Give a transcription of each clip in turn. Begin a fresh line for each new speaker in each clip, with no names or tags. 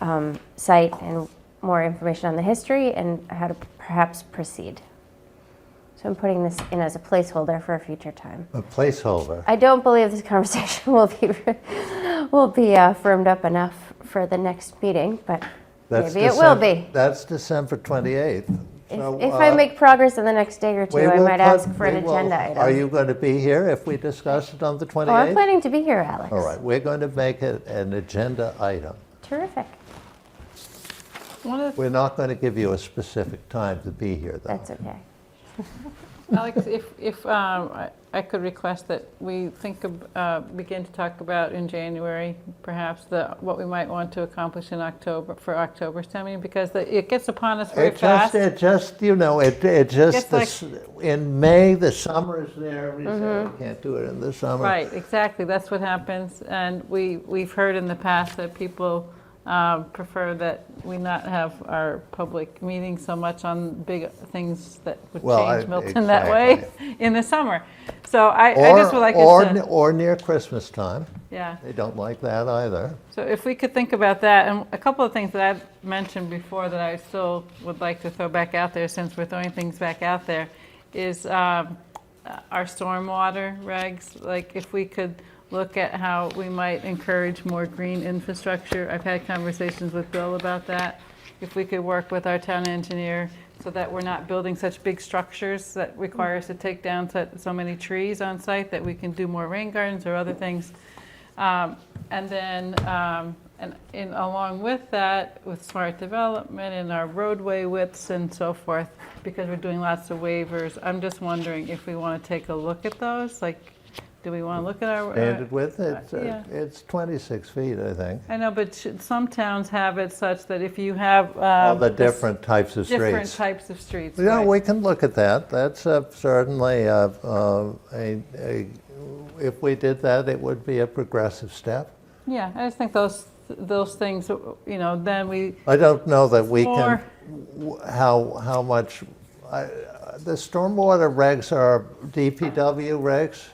um, site and more information on the history and how to perhaps proceed. So I'm putting this in as a placeholder for a future time.
A placeholder.
I don't believe this conversation will be will be uh, firmed up enough for the next meeting, but
That's
maybe it will
Decem-
be.
That's December 28th.
If,
So,
if I
uh,
make progress in the next day or two,
we
I
will
might
put-
ask for an
we will-
agenda item.
Are you going to be here if we discuss it on the
oh, I'm
28th?
planning to be here, Alex.
All right, we're going to make it an agenda item.
Terrific.
One of the,
We're not going to give you a specific time to be here, though.
That's okay.
Alex, if, if um, I I could request that we think, of, uh, begin to talk about in January, perhaps the, what we might want to accomplish in October, for October's town meeting, because the- it gets upon us very
It just,
fast.
it just, you know, it, it just,
Just
the
like-
s- in May, the summer is there, we
Mm-hmm.
say, we can't do it in the summer.
Right, exactly, that's what happens, and we, we've heard in the past that people um, prefer that we not have our public meetings so much on big things that would
Well, I-
change Milton that way in the summer. So I, I
Or-
just would like
Or,
us
n-
to,
or near Christmas time.
yeah.
They don't like that either.
So if we could think about that, and a couple of things that I've mentioned before that I still would like to throw back out there, since we're throwing things back out there, is um, uh, our stormwater regs. Like, if we could look at how we might encourage more green infrastructure. I've had conversations with Bill about that. If we could work with our town engineer so that we're not building such big structures that require us to take down so- so many trees on site, that we can do more rain gardens or other things. Um, And then, um, and in, along with that, with smart development and our roadway widths and so forth, because we're doing lots of waivers, I'm just wondering if we want to take a look at those, like, do we want to look at our? uh,
Standard width, it's, uh,
yeah.
it's 26 feet, I think.
I know, but should- some towns have it such that if you have.
All
um,
the
this-
different types of
Different
streets.
types of streets,
Yeah,
right.
we can look at that. That's uh, certainly, uh, uh, a- a- if we did that, it would be a progressive step.
Yeah, I just think those, those things, you know, then we,
I don't know that we can,
Or-
w- how, how much, I- the stormwater regs are DPW regs?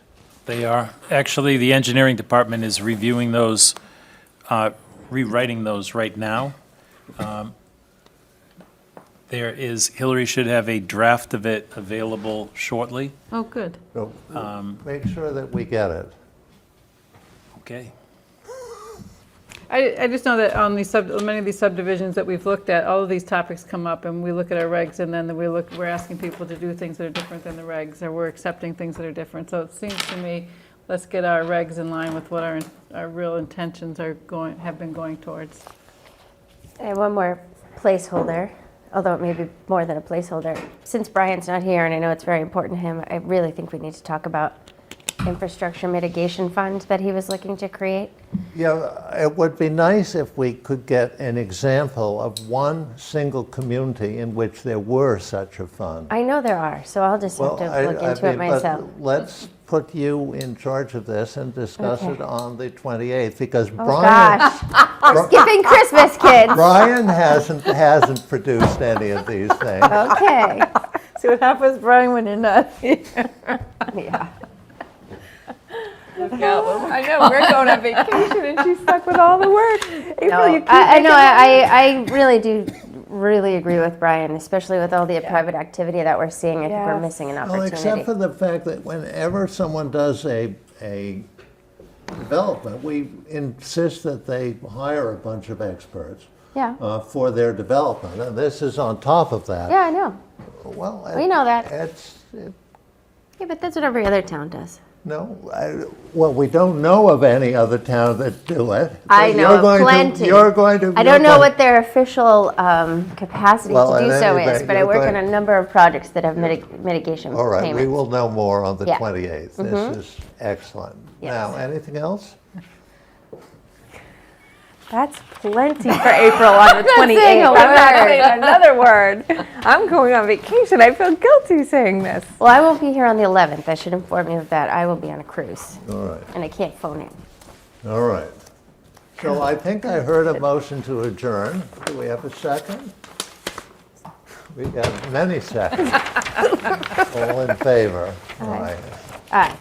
They are. Actually, the engineering department is reviewing those, uh, rewriting those right now. Um, There is, Hillary should have a draft of it available shortly.
oh, good.
So Make sure that we get it.
Okay.
I, I just know that on these sub, many of these subdivisions that we've looked at, all of these topics come up, and we look at our regs, and then we look, we're asking people to do things that are different than the regs, or we're accepting things that are different. So it seems to me, let's get our regs in line with what our, our real intentions are going, have been going towards.
I have Eh, one more placeholder, although it may be more than a placeholder. Since Brian's not here, and I know it's very important to him, I really think we need to talk about infrastructure mitigation fund that he was looking to create.
Yeah, it would be nice if we could get an example of one single community in which there were such a fund.
I know there are, so I'll just have
Well,
to
I-
look
I
into it
mean, but
myself.
Let's put you in charge of this and discuss
Okay.
it on the 28th, because
Oh
Brian,
Gosh, we're skipping Christmas, kids.
Brian hasn't, hasn't produced any of these things.
Oh, Okay.
See what happens, Brian, when you're not here.
Yeah.
I know, we're going on vacation and she's stuck with all the work.
No,
April, you keep
I, I know.
making up.
I, I I really do really agree with Brian, especially with all the private activity that we're seeing. I think we're
Yes.
missing an
Well,
opportunity.
except for the fact that whenever someone does a, a development, we insist that they hire a bunch of experts
yeah.
uh, for their development, and this is on top of that.
Yeah, I know.
Well,
We know that.
It's, it-
Yeah, but that's what every other town does.
no, I- well, we don't know of any other town that do it.
I
but
know
you're
of
going to-
plenty.
You're going to.
I
you're
don't know
going-
what their official um, capacity
Well,
to do
at
so
any
is,
rate,
but I
you're
work on
going-
a number of projects that have mitig- mitigation
All right, we
payments.
will know more on the
Yeah. Mm-hmm.
28th. This is excellent.
Yes.
Now, anything else?
That's plenty.
For April on the 28th.
saying a
I'm not
word.
saying another word. I'm going on vacation. I feel guilty saying this.
Well, I won't be here on the 11th. I should inform you of that. I will be on a cruise,
All right.
and I can't phone in.
All right. So I think I heard a motion to adjourn. Do we have a second? We got many seconds. All in favor? Aye.
Aye.